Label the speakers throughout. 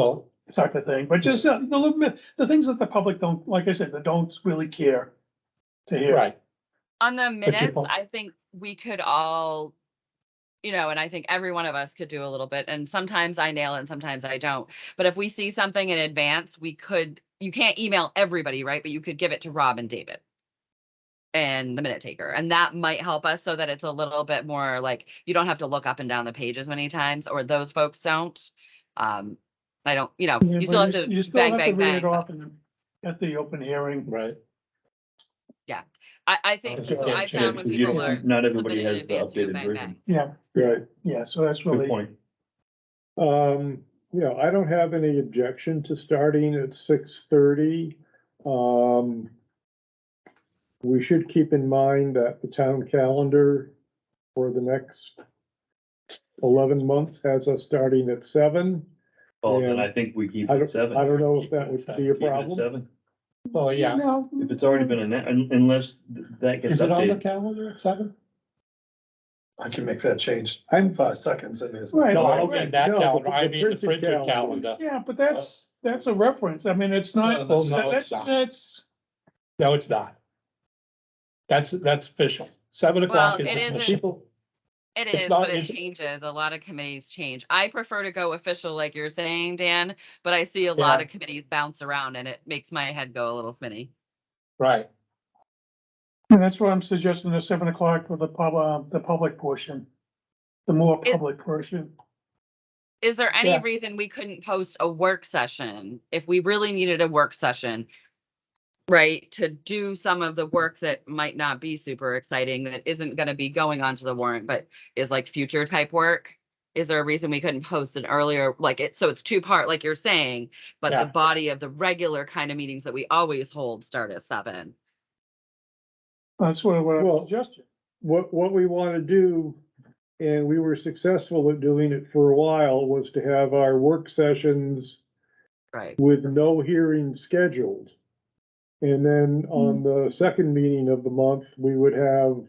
Speaker 1: well, type of thing, but just uh, the little, bit- the things that the public don't, like I said, that don't really care to hear.
Speaker 2: Right,
Speaker 3: On the
Speaker 1: your
Speaker 3: minutes,
Speaker 1: point-
Speaker 3: I think we could all, you know, and I think every one of us could do a little bit, and sometimes I nail it and sometimes I don't. But if we see something in advance, we could, you can't email everybody, right? But you could give it to Rob and David. And the minute taker, and that might help us so that it's a little bit more like, you don't have to look up and down the pages many times, or those folks don't. Um, I don't, you know,
Speaker 1: Yeah,
Speaker 3: you
Speaker 1: but
Speaker 3: still have to
Speaker 1: you still
Speaker 3: bang,
Speaker 1: have to
Speaker 3: bang,
Speaker 1: read it
Speaker 3: bang. but
Speaker 1: off and At the open hearing,
Speaker 2: right.
Speaker 3: I, I think,
Speaker 2: Just
Speaker 3: so
Speaker 2: get
Speaker 3: I
Speaker 2: it changed,
Speaker 3: found when
Speaker 2: 'cause you
Speaker 3: people
Speaker 2: don't-
Speaker 3: are.
Speaker 2: Not everybody
Speaker 3: submitted in
Speaker 2: has the
Speaker 3: advance, you go
Speaker 2: updated
Speaker 3: bang,
Speaker 2: version.
Speaker 1: yeah,
Speaker 4: Right,
Speaker 1: yeah, so that's
Speaker 2: Good
Speaker 1: really,
Speaker 2: point.
Speaker 4: um, yeah, I don't have any objection to starting at six thirty. Um. We should keep in mind that the town calendar for the next eleven months has us starting at seven.
Speaker 5: Well, then
Speaker 4: Yeah.
Speaker 5: I think we keep
Speaker 4: I
Speaker 5: it
Speaker 4: don't,
Speaker 5: seven.
Speaker 4: I don't know if that would be a
Speaker 5: Keep it at
Speaker 4: problem.
Speaker 5: Seven,
Speaker 2: Well, Oh, yeah,
Speaker 1: no.
Speaker 5: if it's already been announced, unless th- that gets
Speaker 2: is it on the
Speaker 5: updated.
Speaker 2: calendar at seven?
Speaker 6: I can make that change in
Speaker 4: I'm,
Speaker 6: five seconds. I mean, it's-
Speaker 1: Right.
Speaker 2: No, I
Speaker 1: right,
Speaker 2: don't mean
Speaker 1: right.
Speaker 2: that
Speaker 4: No,
Speaker 2: calendar,
Speaker 4: but
Speaker 2: I
Speaker 4: the
Speaker 2: mean the
Speaker 4: printed
Speaker 2: printed
Speaker 4: calendar.
Speaker 2: calendar.
Speaker 1: Yeah, but that's, that's a reference, I mean, it's not,
Speaker 2: Uh, No, no,
Speaker 1: that's,
Speaker 2: it's not.
Speaker 1: that's,
Speaker 2: No, it's not. That's, that's official, seven o'clock
Speaker 3: Well,
Speaker 2: is
Speaker 3: it
Speaker 2: official.
Speaker 3: isn't-
Speaker 2: People-
Speaker 3: It
Speaker 2: It's
Speaker 3: is,
Speaker 2: not-
Speaker 3: but it
Speaker 2: it's-
Speaker 3: changes. A lot of committees change. I prefer to go official like you're saying, Dan, but I see a lot
Speaker 2: Yeah.
Speaker 3: of committees bounce around and it makes my head go a little spinny.
Speaker 2: Right,
Speaker 1: and that's what I'm suggesting, the seven o'clock for the pub, uh, the public portion. The more
Speaker 3: It-
Speaker 1: public portion,
Speaker 3: Is there any
Speaker 1: Yeah.
Speaker 3: reason we couldn't post a work session if we really needed a work session? Right, to do some of the work that might not be super exciting, that isn't gonna be going onto the warrant, but is like future type work? Is there a reason we couldn't post an earlier, like it, so it's two part, like you're saying, but
Speaker 2: Yeah.
Speaker 3: the body of the regular kind of meetings that we always hold start at seven?
Speaker 1: that's what, what I'm
Speaker 4: Well,
Speaker 1: suggesting.
Speaker 4: what, what we want to do, and we were successful at doing it for a while, was to have our work sessions
Speaker 3: Right,
Speaker 4: with no hearing scheduled. And then on the second meeting of the month, we would have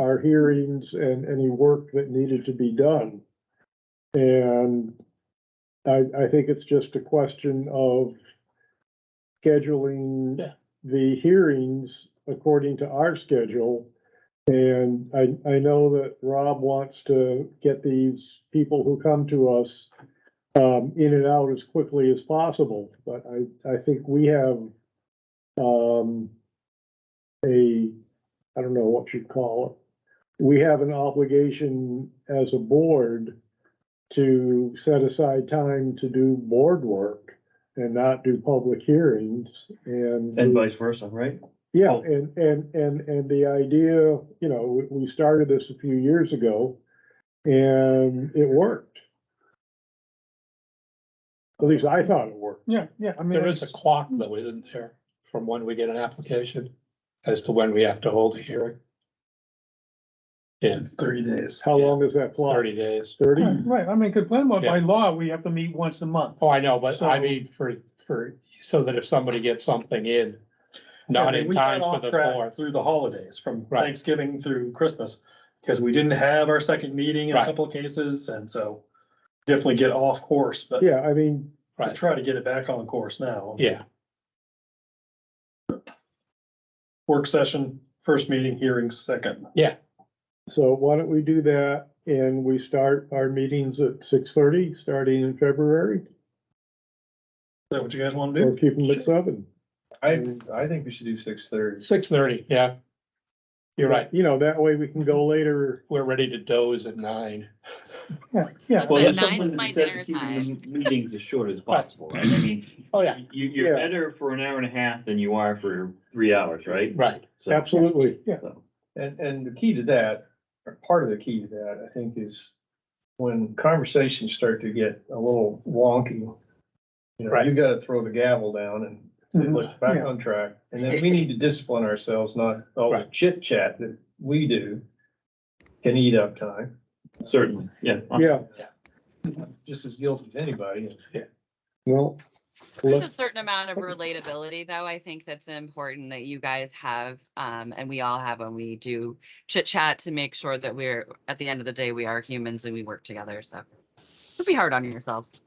Speaker 4: our hearings and any work that needed to be done. And I, I think it's just a question of scheduling
Speaker 2: Yeah.
Speaker 4: the hearings according to our schedule. And I, I know that Rob wants to get these people who come to us um, in and out as quickly as possible, but I, I think we have, um, a, I don't know what you'd call it. We have an obligation as a board to set aside time to do board work and not do public hearings and.
Speaker 5: And vice versa, right?
Speaker 4: Yeah,
Speaker 5: Oh.
Speaker 4: and, and, and, and the idea, you know, we, we started this a few years ago and it worked. At least I thought it worked.
Speaker 1: Yeah, yeah, I mean.
Speaker 2: there is a
Speaker 1: it's-
Speaker 2: clock though, isn't there, from when we get an application as to when we have to hold a hearing? In
Speaker 6: Thirty days.
Speaker 4: How
Speaker 2: Yeah.
Speaker 4: long is that clock?
Speaker 2: thirty days.
Speaker 4: Thirty?
Speaker 1: Right, Right, I mean, cause Glenmore, by
Speaker 2: Yeah.
Speaker 1: law, we have to meet once a month.
Speaker 2: Oh, I know, but I
Speaker 1: So-
Speaker 2: mean, for, for, so that if somebody gets something in,
Speaker 6: I
Speaker 2: not
Speaker 6: mean,
Speaker 2: in
Speaker 6: we got
Speaker 2: time for
Speaker 6: off
Speaker 2: the
Speaker 6: track
Speaker 2: fourth.
Speaker 6: Through the holidays, from
Speaker 2: Right.
Speaker 6: Thanksgiving through Christmas, because we didn't have our second meeting in a
Speaker 2: Right.
Speaker 6: couple of cases, and so definitely get off course, but
Speaker 4: Yeah, I mean,
Speaker 6: I try to get it back on course now.
Speaker 2: Yeah,
Speaker 6: Work session, first meeting, hearing second.
Speaker 4: so why don't we do that and we start our meetings at six thirty, starting in February?
Speaker 6: Is that what you guys want to
Speaker 4: Or
Speaker 6: do?
Speaker 4: keep them at seven?
Speaker 5: I, I think we should do six thirty.
Speaker 2: six thirty, yeah. You're right,
Speaker 4: You know, that way we can go later.
Speaker 2: we're ready to doze at nine.
Speaker 1: Yeah, yeah,
Speaker 3: That's
Speaker 5: Well,
Speaker 3: But
Speaker 5: that's
Speaker 3: nine's
Speaker 5: something
Speaker 3: my
Speaker 5: that says
Speaker 3: dinner
Speaker 5: keeping the
Speaker 3: time.
Speaker 5: Meetings as short as possible, right? I mean,
Speaker 2: Oh, yeah,
Speaker 5: you, you're
Speaker 4: Yeah.
Speaker 5: better for an hour and a half than you are for three hours, right?
Speaker 2: right,
Speaker 5: So-
Speaker 4: Absolutely.
Speaker 5: so.
Speaker 7: And, and the key to that, or part of the key to that, I think, is when conversations start to get a little wonky, you know,
Speaker 2: Right.
Speaker 7: you gotta throw the gavel down and say,
Speaker 1: Mhm.
Speaker 7: look, back
Speaker 1: Yeah.
Speaker 7: on track. And then we need to discipline ourselves, not all the
Speaker 2: Right.
Speaker 7: chit chat that we do can eat up time,
Speaker 5: Certainly, yeah.
Speaker 4: Yeah,
Speaker 7: just as guilty as anybody.
Speaker 4: well,
Speaker 3: There's a
Speaker 4: let's,
Speaker 3: certain amount of relatability though, I think that's important that you guys have, um, and we all have when we do chit chat to make sure that we're, at the end of the day, we are humans and we work together, so. Don't be hard on yourselves.